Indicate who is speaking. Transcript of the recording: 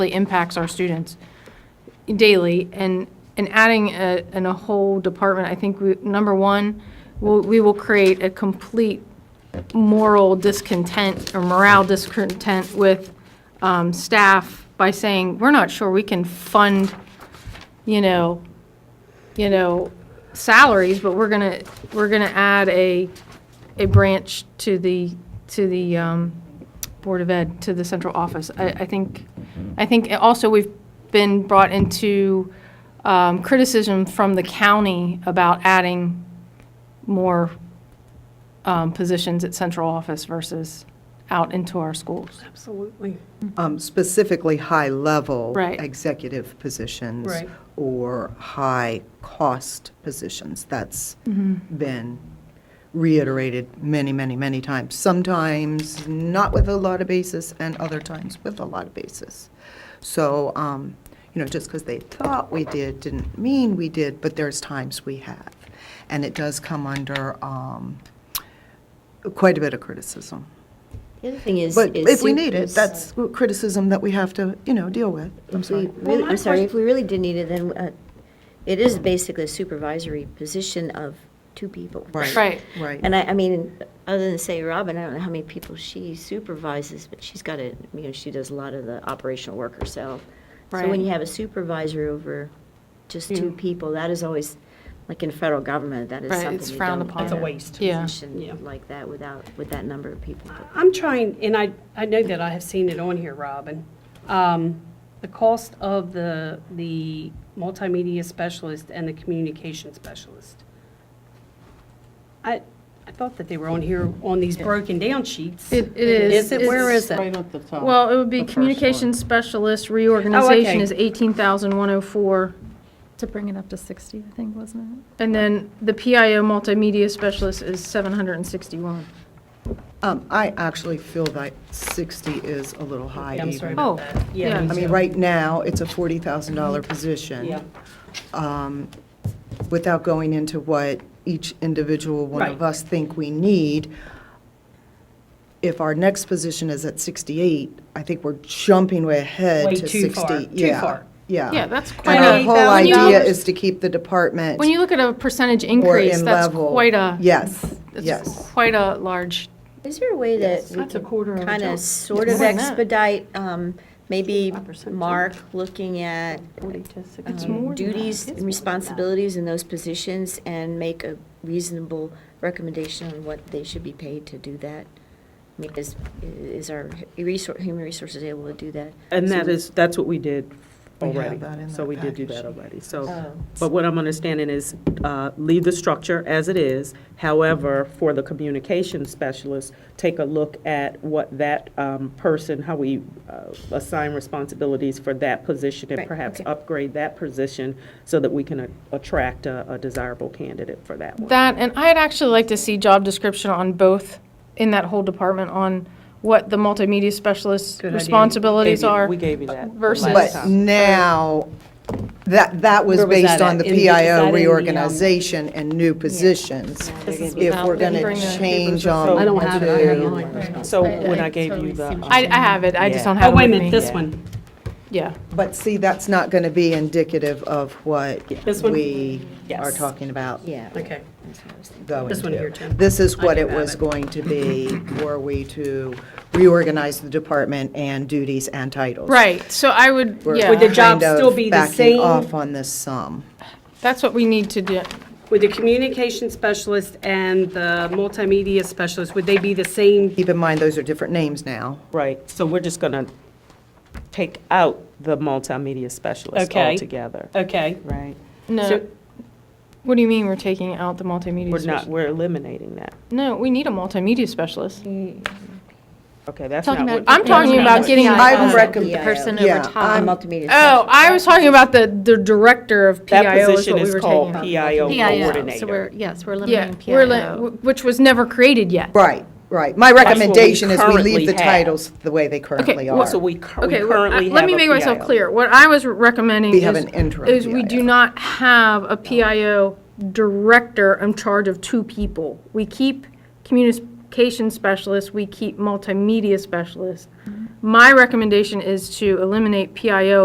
Speaker 1: really impacts our students daily. And, and adding a, in a whole department, I think, we- number one, we'll- we will create a complete moral discontent or morale discontent with um, staff by saying, we're not sure we can fund, you know, you know, salaries, but we're gonna, we're gonna add a, a branch to the, to the um, Board of Ed, to the central office. I, I think, I think also we've been brought into um, criticism from the county about adding more um, positions at central office versus out into our schools.
Speaker 2: Absolutely.
Speaker 3: Um, Specifically, high-level.
Speaker 1: Right.
Speaker 3: Executive positions.
Speaker 2: Right.
Speaker 3: Or high-cost positions. That's been reiterated many, many, many times. Sometimes not with a lot of basis, and other times with a lot of basis. So, um, you know, just because they thought we did, didn't mean we did, but there's times we have. And it does come under um, quite a bit of criticism.
Speaker 4: The other thing is.
Speaker 3: But
Speaker 4: is
Speaker 3: if we
Speaker 4: sup-
Speaker 3: need it,
Speaker 4: is-
Speaker 3: that's criticism that we have to, you know, deal with. I'm
Speaker 4: If we
Speaker 3: sorry.
Speaker 4: really, I'm sorry, if we really did need it, then uh, it is basically a supervisory position of two people.
Speaker 1: Right.
Speaker 3: Right.
Speaker 4: And I, I mean, other than say Robin, I don't know how many people she supervises, but she's got a, you know, she does a lot of the operational work herself. So
Speaker 1: Right.
Speaker 4: when you have a supervisor over just two people, that is always, like in federal government, that is
Speaker 1: Right,
Speaker 4: something
Speaker 1: it's
Speaker 4: you
Speaker 1: frowned
Speaker 4: don't
Speaker 1: upon.
Speaker 4: get
Speaker 1: That's a
Speaker 2: waste.
Speaker 1: Yeah.
Speaker 2: Yeah.
Speaker 4: Position like that without, with that number of people.
Speaker 2: I'm trying, and I, I know that I have seen it on here, Robin. Um, The cost of the, the multimedia specialist and the communication specialist. I, I thought that they were on here on these broken down sheets.
Speaker 1: It- it is.
Speaker 2: Is it, where
Speaker 1: It's
Speaker 2: is it?
Speaker 5: at the top.
Speaker 1: Well, it would be communications
Speaker 3: Oh,
Speaker 1: specialist reorganization is 18,104.
Speaker 6: To bring it up to 60, I think, wasn't it?
Speaker 1: And then the PIO multimedia specialist is 761.
Speaker 3: Um, I actually feel that 60 is a little high
Speaker 2: Yeah, I'm sorry
Speaker 3: even.
Speaker 1: Oh,
Speaker 2: about that.
Speaker 1: yeah.
Speaker 2: me
Speaker 3: I mean,
Speaker 2: too.
Speaker 3: right now, it's a $40,000 position. um,
Speaker 2: Yeah.
Speaker 3: Without going into what each individual one of
Speaker 2: Right.
Speaker 3: us think we need, if our next position is at 68, I think we're jumping way ahead
Speaker 2: Way
Speaker 3: to
Speaker 2: too
Speaker 3: 60.
Speaker 2: far, too
Speaker 3: Yeah,
Speaker 2: far.
Speaker 3: Yeah.
Speaker 1: Yeah, that's quite
Speaker 3: Ah. And our
Speaker 1: a,
Speaker 3: whole
Speaker 2: $28,000
Speaker 3: idea is to keep the department
Speaker 1: when you look at a percentage
Speaker 3: or
Speaker 1: increase,
Speaker 3: in
Speaker 1: that's
Speaker 3: level.
Speaker 1: quite a.
Speaker 3: Yes,
Speaker 1: that's
Speaker 3: yes.
Speaker 1: Quite a large,
Speaker 4: Is there a way that we
Speaker 5: That's a quarter of a
Speaker 4: kind
Speaker 5: job.
Speaker 4: of sort of
Speaker 1: More than that.
Speaker 4: expedite, um, maybe
Speaker 5: percent.
Speaker 4: Mark looking at um, duties and responsibilities in those positions and make a reasonable recommendation on what they should be paid to do that? I mean, is, is our resor- human resources able to do that?
Speaker 5: And that is, that's what we did
Speaker 3: We have
Speaker 5: already.
Speaker 3: that in
Speaker 5: So
Speaker 3: that
Speaker 5: we did do
Speaker 3: package.
Speaker 5: that already, so. But what I'm understanding is uh, leave the structure as it is. However, for the communication specialist, take a look at what that um, person, how we uh, assign responsibilities for that position and
Speaker 4: Right,
Speaker 5: perhaps
Speaker 4: okay.
Speaker 5: upgrade that position so that we can a- attract a a desirable candidate for that one.
Speaker 1: that, and I'd actually like to see job description on both, in that whole department, on what the multimedia specialist
Speaker 2: Good idea.
Speaker 1: responsibilities
Speaker 5: Gave you-
Speaker 1: are.
Speaker 5: We gave you that.
Speaker 1: versus-
Speaker 5: last
Speaker 3: But
Speaker 5: time.
Speaker 3: now, that, that was
Speaker 2: Where was
Speaker 3: based
Speaker 2: that
Speaker 3: on the
Speaker 2: at? In the- is that
Speaker 3: PIO
Speaker 2: in the, um,
Speaker 3: reorganization and new positions. If we're going
Speaker 1: Bring
Speaker 3: to
Speaker 1: the-
Speaker 3: change on.
Speaker 2: I don't have it, I have mine.
Speaker 5: So when I gave you the. um,
Speaker 1: I, I have it, I just
Speaker 5: Yeah.
Speaker 1: don't
Speaker 2: Oh,
Speaker 1: have it
Speaker 2: wait a
Speaker 1: with me.
Speaker 2: minute, this one.
Speaker 1: Yeah,
Speaker 3: But see, that's not going to be indicative of what
Speaker 2: This one?
Speaker 3: we are
Speaker 2: Yes.
Speaker 3: talking about
Speaker 4: Yeah.
Speaker 2: Okay.
Speaker 4: that's what I was thinking.
Speaker 3: going
Speaker 2: This one
Speaker 3: to.
Speaker 2: here, too.
Speaker 3: This is
Speaker 2: I
Speaker 3: what
Speaker 2: do
Speaker 3: it
Speaker 2: have
Speaker 3: was
Speaker 2: it.
Speaker 3: going to be were we to reorganize the department and duties and titles.
Speaker 1: right, so I would,
Speaker 3: We're
Speaker 1: yeah.
Speaker 2: Would the job
Speaker 3: kind of
Speaker 2: still be the
Speaker 3: Backing
Speaker 2: same?
Speaker 3: off on this sum.
Speaker 1: That's what we need to do.
Speaker 2: Would the communication specialist and the multimedia specialist, would they be the same?
Speaker 3: Keep in mind, those are different names now.
Speaker 5: Right, so we're just going to take out the multimedia specialist
Speaker 2: Okay.
Speaker 5: altogether,
Speaker 2: Okay.
Speaker 5: right?
Speaker 1: No.
Speaker 2: So-
Speaker 1: What do you mean we're taking out the multimedia
Speaker 5: We're not,
Speaker 1: specialist?
Speaker 5: we're eliminating that.
Speaker 1: No, we need a multimedia specialist.
Speaker 5: Okay, that's not
Speaker 7: Talking
Speaker 5: what.
Speaker 7: about.
Speaker 1: I'm talking about getting.
Speaker 3: I would
Speaker 7: the
Speaker 3: recommend-
Speaker 7: Person
Speaker 3: yeah,
Speaker 7: over
Speaker 4: Uh,
Speaker 7: time.
Speaker 4: Multimedia.
Speaker 1: Oh, I was talking about the, the director of
Speaker 5: That
Speaker 1: PIO is
Speaker 5: position
Speaker 1: what we
Speaker 5: is
Speaker 1: were
Speaker 5: called
Speaker 1: taking out.
Speaker 5: PIO
Speaker 7: PIO, so we're,
Speaker 5: coordinator.
Speaker 7: yes, we're
Speaker 1: Yeah,
Speaker 7: limiting
Speaker 1: we're, li-
Speaker 7: PIO.
Speaker 1: wh- which was never created yet.
Speaker 3: Right, right. My
Speaker 5: what we
Speaker 3: recommendation is we
Speaker 5: currently
Speaker 3: leave the
Speaker 5: have.
Speaker 3: titles the way they currently
Speaker 1: well,
Speaker 3: are.
Speaker 5: So we cur- we
Speaker 1: Okay, well, I-
Speaker 5: currently have
Speaker 1: let me
Speaker 5: a
Speaker 1: make myself
Speaker 5: PIO.
Speaker 1: clear. What I was recommending
Speaker 3: We have an
Speaker 1: is,
Speaker 3: interim
Speaker 1: is we do
Speaker 3: PIO.
Speaker 1: not have a PIO director in charge of two people. We keep communication specialists, we keep multimedia specialists. My recommendation is to eliminate PIO